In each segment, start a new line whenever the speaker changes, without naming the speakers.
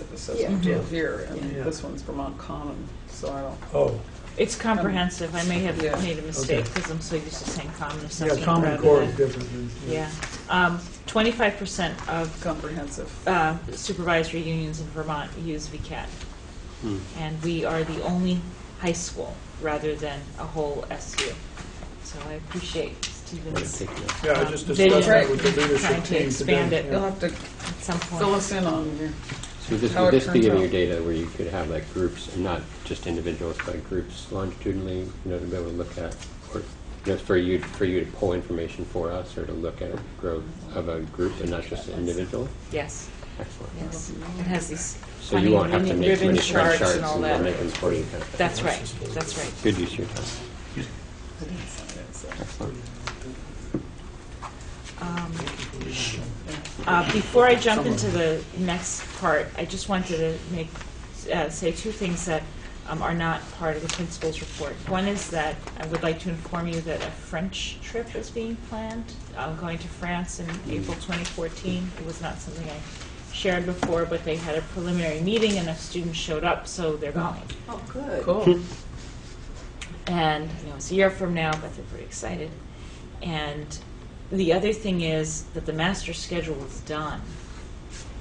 If assessment
Yeah.
deal here, and
Yeah.
this one's Vermont Common, so I don't,
Oh,
It's comprehensive. I may have
Yeah.
made a mistake
Okay.
because I'm so used to saying common
yeah,
assessment.
Common
rather
Core
than-
is different than.
Yeah. Um, 25% of
comprehensive.
uh, supervisory unions in Vermont use VCAT.
Hmm.
And we are the only high school rather than a whole SU. So I appreciate Stephen's
Take it.
Yeah, I just
Um,
discussed that
vision,
with the
trying
leadership
to
team
expand
today.
it.
You'll
yeah.
have to
at some
fill
point.
us in on your,
So this,
How
would
it
this be
turns
in your
out.
data where you could have like groups, and not just individuals, but groups longitudinally, you know, to be able to look at, or, you know, for you, for you to pull information for us, or to look at growth of a group and not just an individual?
Yes,
Excellent.
yes. It has these
So
funny
you won't have to
ribbon
make too
ribbon
many spread
charts
charts
and all
and we'll make them
that.
for you kind of thing.
That's right, that's right.
Good use of your time.
Um, uh, Before I jump into the next part, I just wanted to make, uh, say two things that um, are not part of the principal's report. One is that I would like to inform you that a French trip is being planned. I'm going to France in April 2014. It was not something I shared before, but they had a preliminary meeting and a student showed up, so they're going.
Oh, good.
cool.
And, you know, it's a year from now, but they're pretty excited. And the other thing is that the master schedule is done.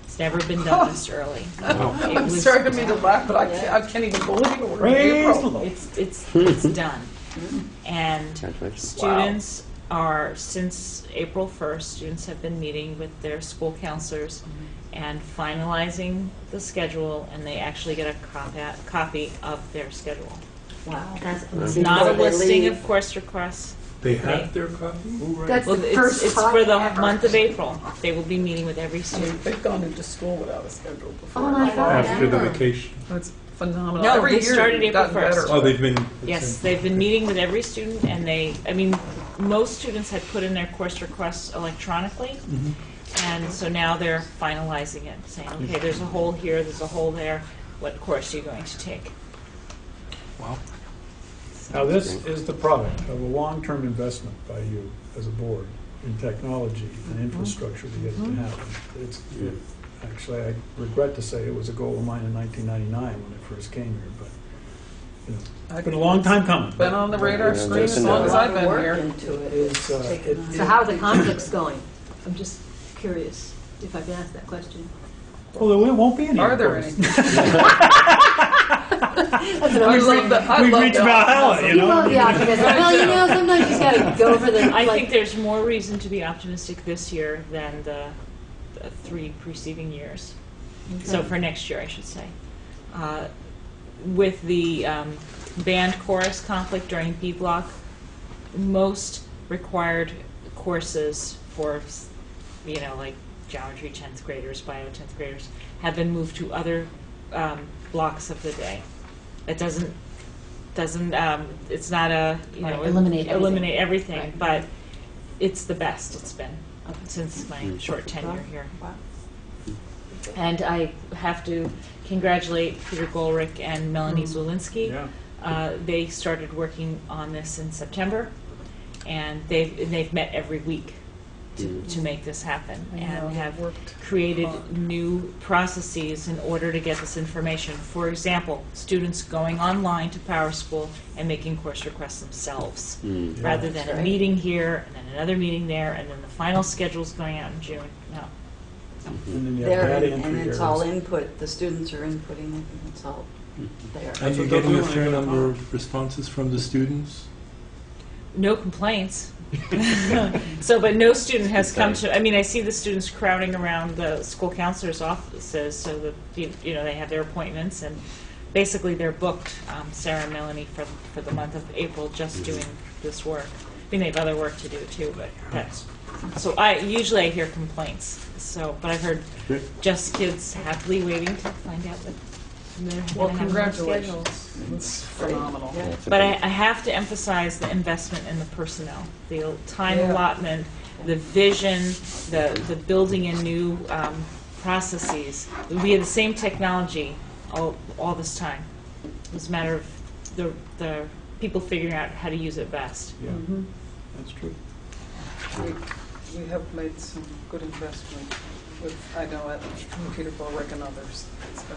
It's never been done this early. It
Oh, I'm
was-
sorry to make you laugh, but I can't, I can't even believe it. We're in
Praise the
April.
Lord.
It's, it's, it's done. And
Congratulations.
students are, since April 1st, students have been meeting with their school counselors and finalizing the schedule, and they actually get a copy, copy of their schedule.
Wow.
It's not a
Before they
listing
leave.
of course requests.
They
have
their copy?
That's
Well,
the
it's,
first
it's
time
for the
ever.
month of April. They will be meeting with
I
every
mean,
student.
they've gone into school without a schedule before.
Oh my God.
After the
Yeah.
vacation.
It's phenomenal.
No,
Every
they
year
started
we've
April
gotten
1st.
better.
Oh, they've been.
Yes, they've been meeting with every student, and they, I mean, most students had put in their course requests electronically,
Mm-hmm.
and so now they're finalizing it, saying, okay, there's a hole here, there's a hole there, what course are you going to take?
Now, this is the product of a long-term investment by you as a board in technology and infrastructure to get it to happen. It's,
Yeah.
actually, I regret to say it was a goal of mine in 1999 when I first came here, but, you know,
I-
it's been a long time coming.
Been on the radar
Yeah,
screen as
listen
long
up.
as I've
A lot of
been
work
here.
into it.
It's, uh,
It's taken
it-
on.
So how are the conflicts going? I'm just curious, if I can ask that question.
Well, there won't be any.
Are there
of
any?
course.
That's
I
another
love
thing.
the, I
We've
love
reached
the-
Valhalla, you know?
Well, yeah, because, well, you know, sometimes you just gotta go for the,
I think
like,
there's more reason to be optimistic this year than the, the three preceding years. So for next year, I should say. Uh, With the um, band chorus conflict during B block, most required courses for, you know, like geometry 10th graders, bio 10th graders, have been moved to other um, blocks of the day. That doesn't, doesn't, um, it's not a, you know.
Right, eliminate everything.
Eliminate everything,
Right.
but it's the best it's been since my short tenure here.
Wow.
And I have to congratulate Peter Golrick and Melanie
Mm.
Zulinski.
Yeah.
Uh, they started working on this in September, and they've, and they've met every week to,
Mm.
to make this happen,
Mm-hmm. I know,
and have
worked
created
hard.
new processes in order to get this information. For example, students going online to Power School and making course requests themselves,
Mm.
rather than a
right.
meeting here, and then another meeting there, and then the final schedule's going out in June. No,
Mm.
And then you have
There,
that
and and
entry
it's all
here.
input, the students are inputting it, and it's all there.
And you're
That's
getting
what they're
a
doing.
fair number of responses from the students?
no complaints. so, but no student has come to. I mean, I see the students crowding around the school counselor's offices so that you, you know they have their appointments and basically they're booked. Um, Sarah and Melanie for for the month of April just doing this work. I mean, they have other work to do too, but that's. So I usually I hear complaints. So, but I've heard
Good.
just kids happily waiting to find out that they're
Well,
gonna have more schedules.
congratulations. It's phenomenal.
Yeah.
That's a
But I,
big-
I have to emphasize the investment in the personnel, the time
Yeah.
allotment, the vision, the, the building in new um, processes. We had the same technology all, all this time. It was a matter of the, the people figuring out how to use it best.
Yeah,
Mhm.
that's true.
We we have made some good investment with, I know at Peter Berwick and others, it's been